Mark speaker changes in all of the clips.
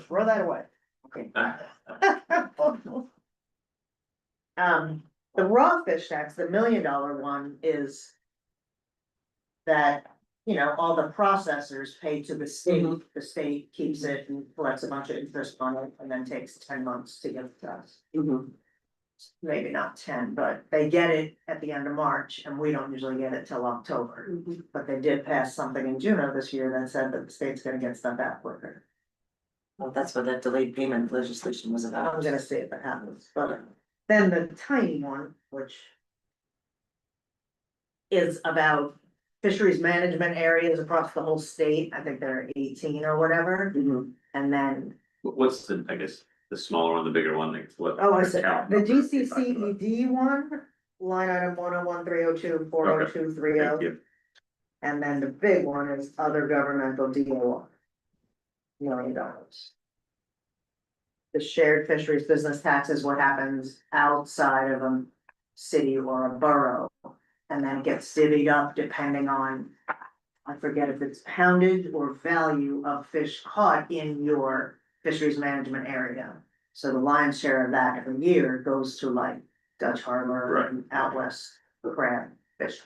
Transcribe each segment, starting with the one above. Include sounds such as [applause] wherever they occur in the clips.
Speaker 1: throw that away. Okay. Um, the raw fish tax, the million dollar one is. That, you know, all the processors pay to the state, the state keeps it and collects a bunch of interest on it and then takes ten months to give it to us. Maybe not ten, but they get it at the end of March and we don't usually get it till October. But they did pass something in June of this year that said that the state's gonna get stuff out quicker.
Speaker 2: Well, that's what that delayed payment legislation was
Speaker 1: I'm
Speaker 2: about.
Speaker 1: gonna see if it happens, but then the tiny one, which. Is about fisheries management areas across the whole state. I think there are eighteen or whatever.
Speaker 3: Mm-hmm.
Speaker 2: Mhm.
Speaker 1: And then,
Speaker 4: Wh- What's the, I guess, the smaller one, the bigger one, like what?
Speaker 1: oh, I said,
Speaker 4: account
Speaker 1: the
Speaker 4: number are you talking about?
Speaker 1: GCCED E one, line item one oh one, three oh two, four oh two, three oh.
Speaker 4: Thank you.
Speaker 1: And then the big one is other governmental DOR. Million dollars. The shared fisheries business tax is what happens outside of a city or a borough. And then it gets divvied up depending on, I forget if it's poundage or value of fish caught in your fisheries management area. So the lion's share of that every year goes to like Dutch Harbor and out west crab fish.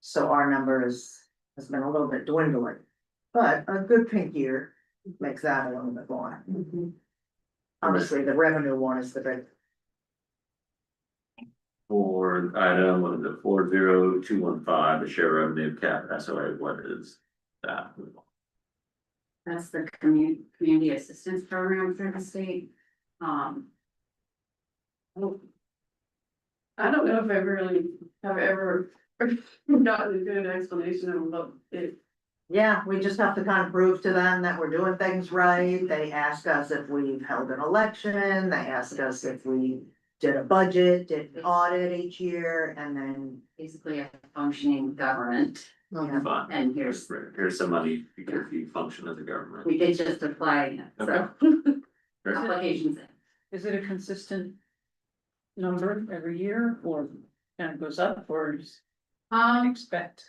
Speaker 1: So our number is, has been a little bit dwindling, but a good pink year makes that a little bit more.
Speaker 5: Mm-hmm.
Speaker 1: Honestly, the revenue one is the big,
Speaker 4: For item, what is it, four zero two one five, the share revenue cap, that's all right, what is that?
Speaker 3: That's the commu- community assistance program for the state, um. I don't know if I really have ever [laughs] gotten a good explanation of what it,
Speaker 1: yeah, we just have to kind of prove to them that we're doing things right. They ask us if we've held an election, they ask us if we did a budget, did an audit each year, and then,
Speaker 3: basically a functioning government,
Speaker 1: you
Speaker 5: Mm-hmm.
Speaker 1: know,
Speaker 4: Fine.
Speaker 3: and
Speaker 4: Here's,
Speaker 3: here's,
Speaker 4: here's some money, because you function as a government.
Speaker 3: we did just apply, so. [laughs]
Speaker 4: Great.
Speaker 3: Applications,
Speaker 5: Is it a consistent number every year or kind of goes up or is
Speaker 3: um,
Speaker 5: expect?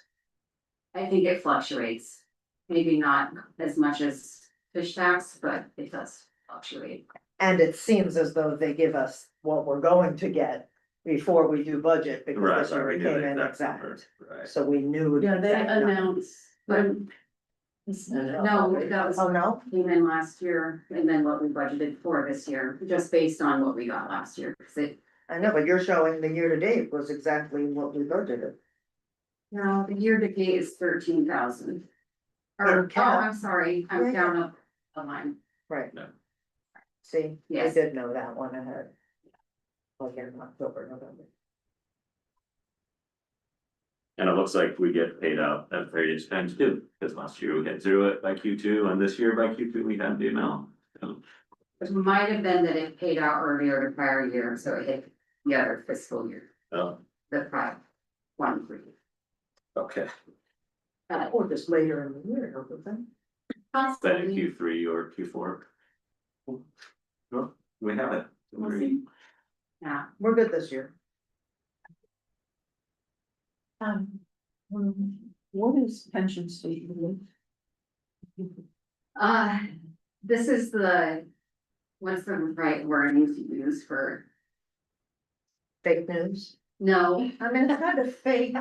Speaker 3: I think it fluctuates, maybe not as much as fish tax, but it does fluctuate.
Speaker 1: And it seems as though they give us what we're going to get before we do budget,
Speaker 4: Right,
Speaker 1: because this year
Speaker 4: sorry,
Speaker 1: it
Speaker 4: we knew
Speaker 1: came
Speaker 4: the
Speaker 1: in
Speaker 4: exact number,
Speaker 1: exact.
Speaker 4: right.
Speaker 1: So we knew.
Speaker 5: Yeah, they
Speaker 1: that number.
Speaker 3: when No, that was
Speaker 1: Oh, no?
Speaker 3: came in last year and then what we budgeted for this year, just based on what we got last year, because it.
Speaker 1: I know, but you're showing the year to date was exactly what we budgeted.
Speaker 3: No, the year to date is thirteen thousand.
Speaker 1: In
Speaker 3: Or, oh,
Speaker 1: cap.
Speaker 3: I'm sorry,
Speaker 1: Yeah,
Speaker 3: I'm
Speaker 1: yeah.
Speaker 3: down up a line,
Speaker 1: Right.
Speaker 4: No.
Speaker 1: See, I
Speaker 3: Yes.
Speaker 1: did know that one ahead. Like in October, November.
Speaker 4: And it looks like we get paid out at various times too, because last year we had zero it by Q two, and this year by Q two, we had the amount.
Speaker 3: it might have been that it paid out earlier the prior year, so it hit the other fiscal year,
Speaker 4: Oh,
Speaker 3: the prior one. for you.
Speaker 4: okay,
Speaker 3: But
Speaker 1: Or Oh, just later in the year, or something.
Speaker 4: then in
Speaker 3: possibly,
Speaker 4: Q three or Q four. Well, we have it.
Speaker 3: We'll see. yeah,
Speaker 1: We're good this year.
Speaker 5: Um, what is pension statement?
Speaker 3: uh, this is the. What's the right wording to use for,
Speaker 1: Fake news.
Speaker 3: no,
Speaker 1: I mean, it's kind of fake.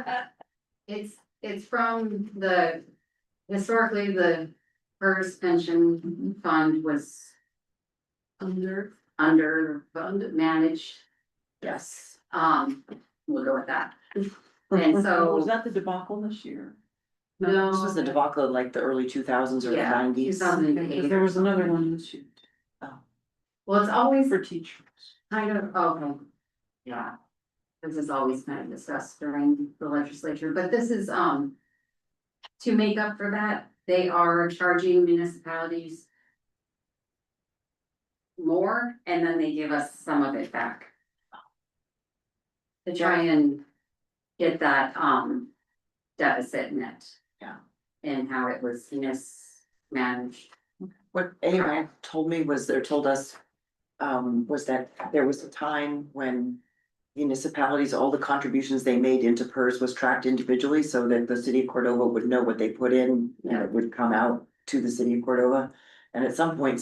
Speaker 3: It's, it's from the, historically, the first pension fund was. Under. Under, fund managed.
Speaker 5: Oh.
Speaker 3: Yes. Um, we'll go with that. And
Speaker 5: Oh, Was
Speaker 3: so,
Speaker 5: [laughs] that the debacle this year?
Speaker 3: no,
Speaker 2: This was the debacle in like the early two thousands or the
Speaker 3: Yeah,
Speaker 2: nineties.
Speaker 3: 2008.
Speaker 5: Because there was another one this year
Speaker 3: well, it's always
Speaker 5: for teachers.
Speaker 3: kind of, oh, yeah. This is always kind of discussed during the legislature, but this is, um. To make up for that, they are charging municipalities. More, and then they give us some of it back. To try and get that, um, deficit net.
Speaker 2: Yeah.
Speaker 3: And how it was mismanaged.
Speaker 2: What anyone told me was, or told us, um, was that there was a time when municipalities, all the contributions they made into PERS was tracked individually so that the city of Cordova would know what they put in and it would come out to the city of Cordova. And at some point,